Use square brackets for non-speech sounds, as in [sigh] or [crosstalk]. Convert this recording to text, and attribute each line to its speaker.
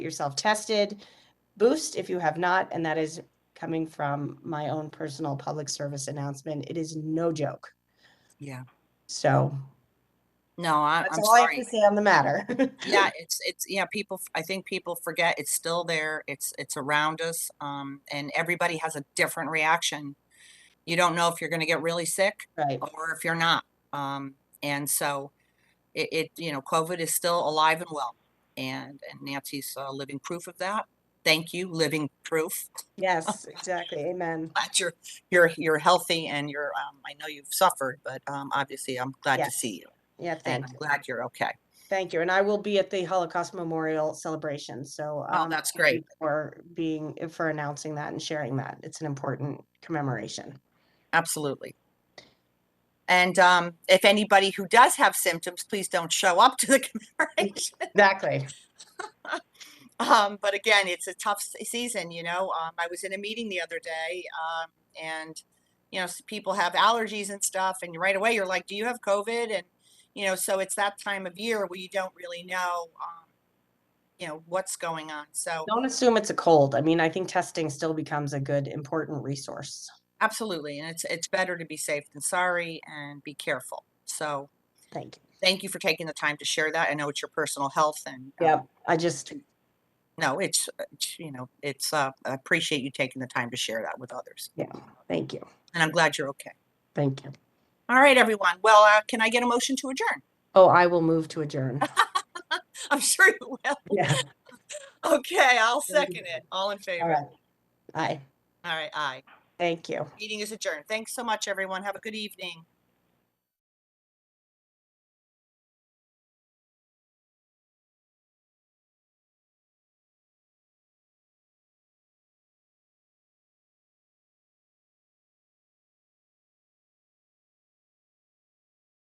Speaker 1: yourself tested, boost if you have not, and that is coming from my own personal public service announcement. It is no joke.
Speaker 2: Yeah.
Speaker 1: So
Speaker 2: No, I,
Speaker 1: that's
Speaker 2: I'm
Speaker 1: all I have
Speaker 2: sorry.
Speaker 1: to say on the matter. [laughs]
Speaker 2: Yeah, it's, it's, yeah, people, f- I think people forget it's still there. It's, it's around us. Um, and everybody has a different reaction. You don't know if you're going to get really sick
Speaker 1: Right,
Speaker 2: or if you're not. Um, and so it, it, you know, COVID is still alive and well. And, and Nancy's uh, living proof of that. Thank you, living proof. [laughs]
Speaker 1: yes, exactly, amen.
Speaker 2: Glad you're, you're, you're healthy and you're, um, I know you've suffered, but, um, obviously I'm glad to
Speaker 1: Yes.
Speaker 2: see you.
Speaker 1: Yeah,
Speaker 2: And
Speaker 1: thank
Speaker 2: I'm
Speaker 1: you,
Speaker 2: glad you're okay.
Speaker 1: thank you. And I will be at the Holocaust Memorial Celebration, so.
Speaker 2: Oh,
Speaker 1: um,
Speaker 2: that's
Speaker 1: thank you
Speaker 2: great.
Speaker 1: For being, for announcing that and sharing that. It's an important commemoration.
Speaker 2: Absolutely. And um, if anybody who does have symptoms, please don't show up to the [laughs] commemoration. [laughs]
Speaker 1: Exactly.
Speaker 2: Um, but again, it's a tough se- season, you know. Um, I was in a meeting the other day, um, and you know, s- people have allergies and stuff, and right away you're like, "Do you have COVID?" And you know, so it's that time of year where you don't really know, um, you know, what's going on. So
Speaker 1: Don't assume it's a cold. I mean, I think testing still becomes a good, important resource.
Speaker 2: absolutely, and it's it's better to be safe than sorry, and be careful. So
Speaker 1: Thank you.
Speaker 2: thank you for taking the time to share that. I know it's your personal health and um,
Speaker 1: Yep, I just,
Speaker 2: no, it's, uh, it's, you know, it's, uh, I appreciate you taking the time to share that with others
Speaker 1: thank you,
Speaker 2: and I'm glad you're okay.
Speaker 1: thank you.
Speaker 2: All right, everyone. Well, uh, can I get a motion to adjourn? [laughs]
Speaker 1: Oh, I will move to adjourn.
Speaker 2: I'm sure [laughs] you will.
Speaker 1: [laughs] Yeah,
Speaker 2: Okay, I'll
Speaker 1: Thank you.
Speaker 2: second it. All in
Speaker 1: all
Speaker 2: favor?
Speaker 1: right. Aye,
Speaker 2: All right, aye.
Speaker 1: thank you.
Speaker 2: Meeting is adjourned. Thanks so much, everyone. Have a good evening.